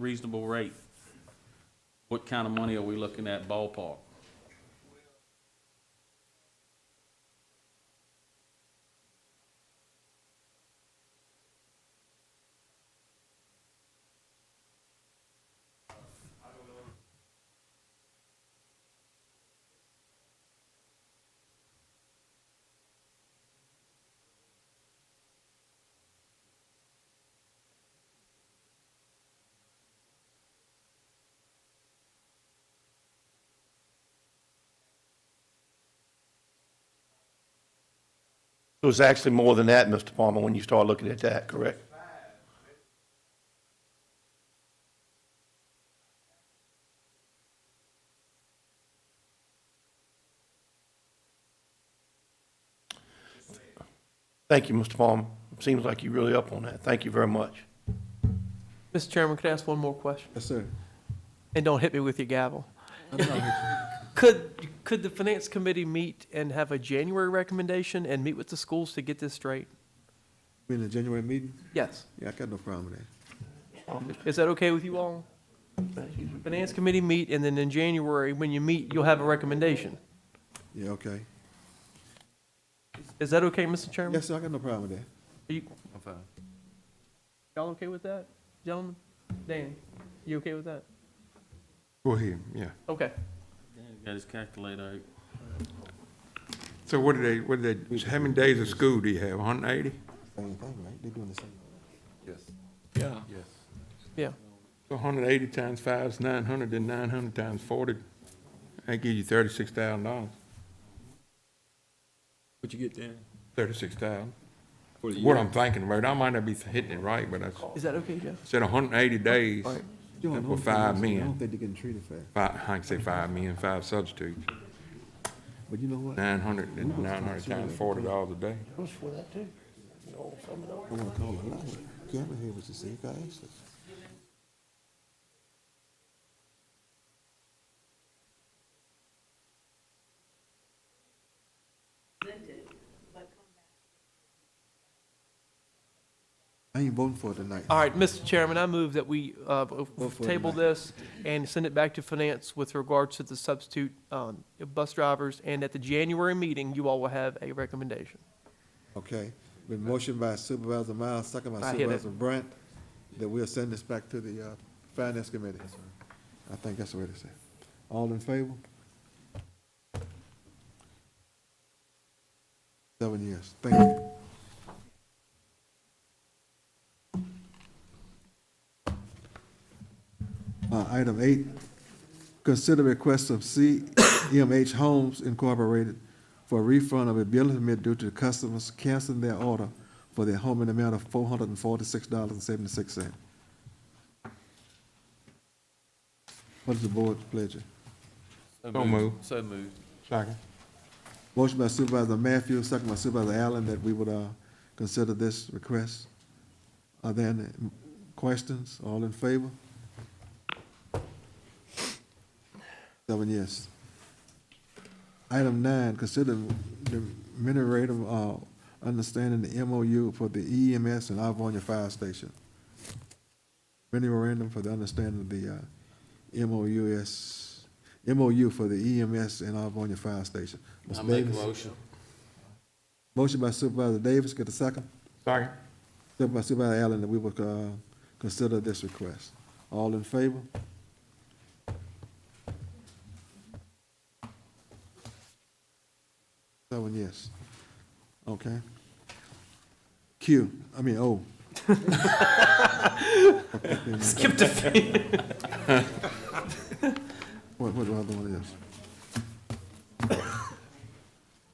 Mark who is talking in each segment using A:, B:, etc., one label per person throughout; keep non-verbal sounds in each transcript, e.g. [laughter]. A: reasonable rate, what kind of money are we looking at ballpark?
B: So it's actually more than that, Mr. Palmer, when you start looking at that, correct? Thank you, Mr. Palmer. Seems like you're really up on that. Thank you very much.
C: Mr. Chairman, could I ask one more question?
D: Yes, sir.
C: And don't hit me with your gavel.
D: [laughs]
C: Could, could the finance committee meet and have a January recommendation and meet with the schools to get this straight?
D: We in the January meeting?
C: Yes.
D: Yeah, I got no problem with that.
C: Is that okay with you all? Finance committee meet, and then in January, when you meet, you'll have a recommendation.
D: Yeah, okay.
C: Is that okay, Mr. Chairman?
D: Yes, sir, I got no problem with that.
C: Are you- Y'all okay with that, gentlemen? Dan, you okay with that?
E: Go ahead, yeah.
C: Okay.
A: Got his calculator out.
E: So what did they, what did they, how many days of school do you have, hundred and eighty?
D: Same thing, right? They doing the same.
C: Yeah.
E: So hundred and eighty times five is nine hundred, then nine hundred times forty, that gives you thirty-six thousand dollars,
F: What you get Dan?
E: thirty-six thousand.
F: For the
E: What
F: year?
E: I'm thinking, right, I might not be hitting it right, but I
C: Is that okay, Jeff?
E: said hundred and eighty days,
D: Doing
E: Except for
D: homecoming,
E: five
D: so I
E: men.
D: don't think they're getting treated fair.
E: five, I can say five men, five substitutes,
D: But you know what? I
E: nine hundred, nine hundred times forty dollars a day.
D: wanna call her. out. Cameron here was to say, you gotta ask her. I ain't voting for it tonight.
C: All right, Mr. Chairman, I move that we uh,
D: for it,
C: table
D: Mike.
C: this and send it back to finance with regards to the substitute um, bus drivers, and at the January meeting, you all will have a recommendation.
D: Okay, been motion by Supervisor Miles, second by
C: I hear that.
D: Supervisor Brent, that we'll send this back to the, uh, Finance Committee. I think that's the way to say it. All in favor? Seven years, thank you. Uh, item eight, Consider request of CMH Homes Incorporated for a refund of a billing permit due to customers canceling their order for their home in the amount of four hundred and forty-six dollars and seventy-six cents. What is the board's pleasure?
E: So moved.
A: So moved.
E: Second.
D: Motion by Supervisor Matthews, second by Supervisor Allen, that we would, uh, consider this request. Are there any questions? All in favor? Seven yes. Item nine, consider the memorandum, uh, understanding the MOU for the EMS and Livonia Fire Station. Memorandum for the understanding of the, uh, MOUS, MOU for the E EMS and Livonia Fire Station. Ms.
A: I make a
D: Davis?
A: motion.
D: Motion by Supervisor Davis, get a second.
E: Second.
D: Second by Supervisor Allen, that we will, uh, consider this request. All in favor? Seven yes. Okay. Q, I mean, O.
C: [laughs] Skip the
D: [laughs] What, what the other one is?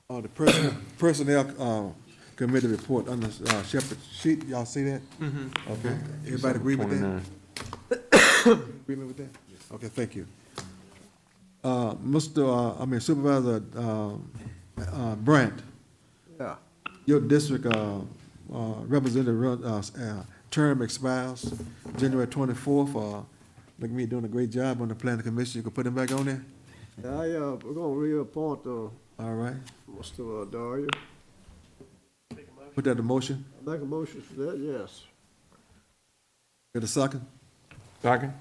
D: Uh, the person, [coughs] personnel, uh, committee report under, uh, Shepherd Sheet, y'all see that? Mm-hmm. Okay, everybody agree with that?
E: 29.
D: [coughs] Agreement with that? Okay, thank you. Uh, Mr., uh, I mean Supervisor, um, uh, Brandt. Yeah. Your district, uh, uh, representative, run- uh, s- uh, term expires January twenty-fourth, uh, look at me doing a great job on the planning commission, you can put him back on there?
G: I, uh, we're gonna reappoint, uh,
D: All right,
G: Mr. Dario.
D: put that to motion,
G: Make a motion for that, yes.
D: get a second?
E: Second.